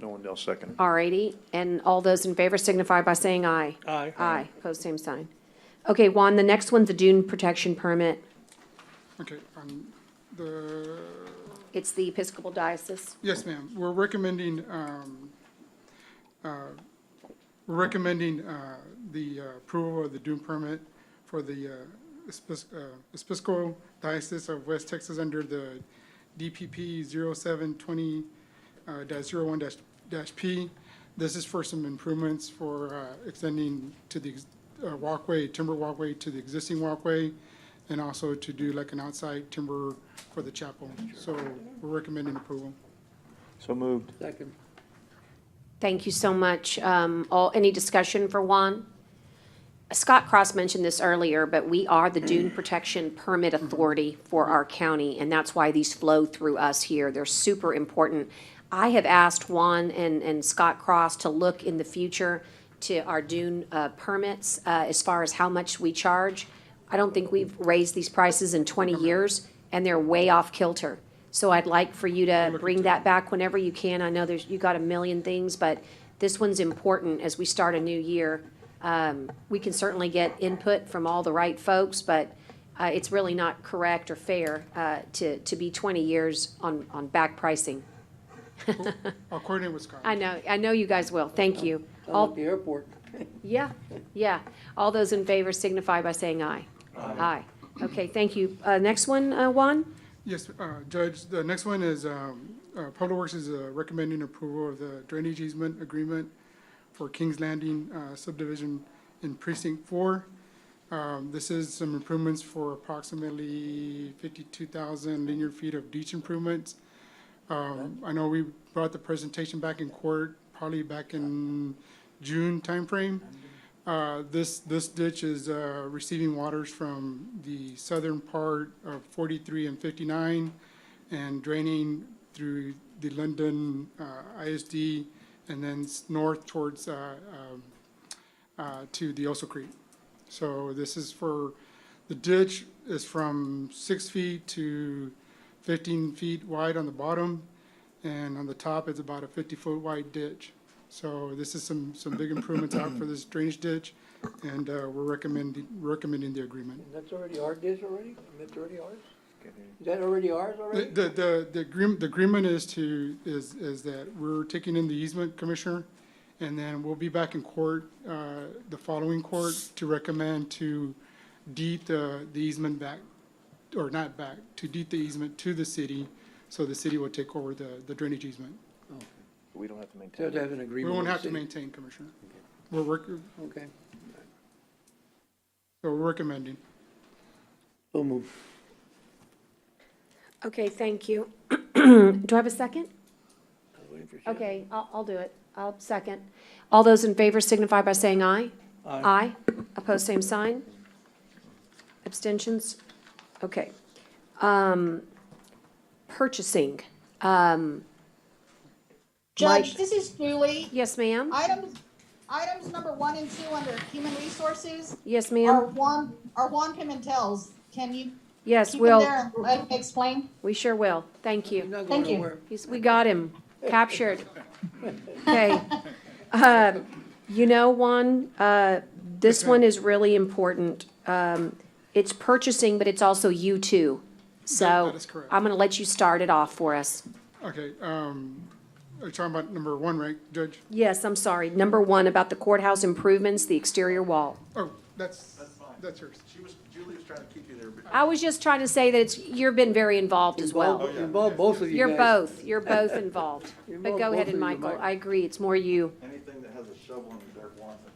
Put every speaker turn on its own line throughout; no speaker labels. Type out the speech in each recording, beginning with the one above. No one else second.
R eighty, and all those in favor signify by saying aye.
Aye.
Aye, pose same sign. Okay, Juan, the next one's a dune protection permit.
Okay, um, the,
It's the Episcopal Diocese.
yes, ma'am, we're recommending, um, uh, we're recommending, uh, the uh, approval of the dune permit for the, uh, Espis- uh, Episcopal Diocese of West Texas under the DPP zero seven twenty, uh, dash zero one dash, dash P. This is for some improvements for, uh, extending to the, ex- uh, walkway, timber walkway to the existing walkway, and also to do like an outside timber for the chapel. So we're recommending approval.
So moved.
Second.
Thank you so much. Um, all, any discussion for Juan? Scott Cross mentioned this earlier, but we are the dune protection permit authority for our county, and that's why these flow through us here. They're super important. I have asked Juan and, and Scott Cross to look in the future to our dune, uh, permits, uh, as far as how much we charge. I don't think we've raised these prices in twenty years, and they're way off kilter. So I'd like for you to bring that back whenever you can. I know there's, you got a million things, but this one's important as we start a new year we can certainly get input from all the right folks, but uh, it's really not correct or fair uh, to, to be 20 years on, on back pricing.
I'll coordinate with Scott.
I know, I know you guys will. Thank Oh, you.
I'm
All,
at the airport.
yeah, yeah. All those in favor signify by saying aye. Aye. Okay, thank you. Uh, Next one, uh, Juan?
Yes, uh, Judge, the next one is, um, uh, Public Works is uh, recommending approval of the drainage easement agreement for Kings Landing uh, subdivision in precinct four. Um, This is some improvements for approximately fifty-two thousand linear feet of ditch improvements. Um, I know we brought the presentation back in court, probably back in June timeframe. Uh, This, this ditch is uh, receiving waters from the southern part of 43 and 59 and draining through the London uh, ISD and then s- north towards, uh, um, uh, to the Oso Creek. So this is for, the ditch is from six feet to 15 feet wide on the bottom, and on the top, it's about a 50-foot wide ditch. So this is some, some big improvements out for this drainage ditch, and uh, we're recommending, recommending the agreement.
And that's already our dish already? And that's already ours? Is that already ours
The,
already?
the- the, the agreement, the agreement is to, is, is that we're taking in the easement, Commissioner, and then we'll be back in court, uh, the following court, to recommend to deed the, the easement back, or not back, to deed the easement to the city, so the city will take over the, the drainage easement.
We don't have to
So
maintain.
they have an
We
agreement.
won't
with
have to
the city.
maintain, Commissioner. We're work, so
Okay.
we're recommending.
So moved.
Okay, thank you. Do I have a second?
I was waiting for Shannon.
Okay, I'll, I'll do it. I'll second. All those in favor signify by saying aye. Aye. Opposed, same sign. Abstentions? Okay. Um, purchasing.
Judge, this is Julie.
Yes, ma'am?
Items, items number one and two under human resources
Yes,
are
ma'am?
Juan, are Juan Pimentel's. Can you
Yes,
keep him
will.
there and let him explain?
We sure will. Thank
He's
you.
not going
Thank you.
nowhere.
He's- We got him captured. Okay. Um, You know, Juan, uh, this one is really important. Um, it's purchasing, but it's also you too. So
That is correct.
I'm going to let you start it off for us.
Okay, um, are you talking about number one, right, Judge?
Yes, I'm sorry. Number one, about the courthouse improvements, the exterior wall.
Oh, that's, that's yours.
She was, Julie was trying to keep you there, but
I was just trying to say that it's, you've been very involved as well.
Oh, yeah.
Involve both of you
You're
guys.
both, you're both involved.
You're
But
both-
go ahead
both
and
of you,
Michael,
Mike.
I agree, it's more you.
anything that has a shovel in the dirt wants it,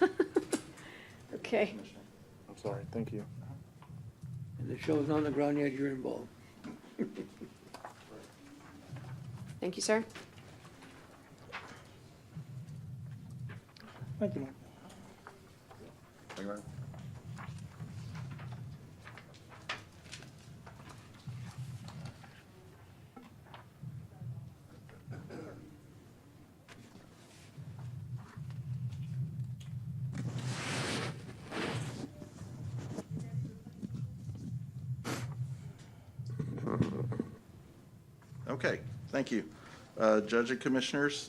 well,
Okay.
Commissioner.
I'm sorry, thank you.
And the show's on the ground yet, you're involved.
Thank you, sir.
Thank you, Mike.
Okay, thank you. Uh, Judge and Commissioners,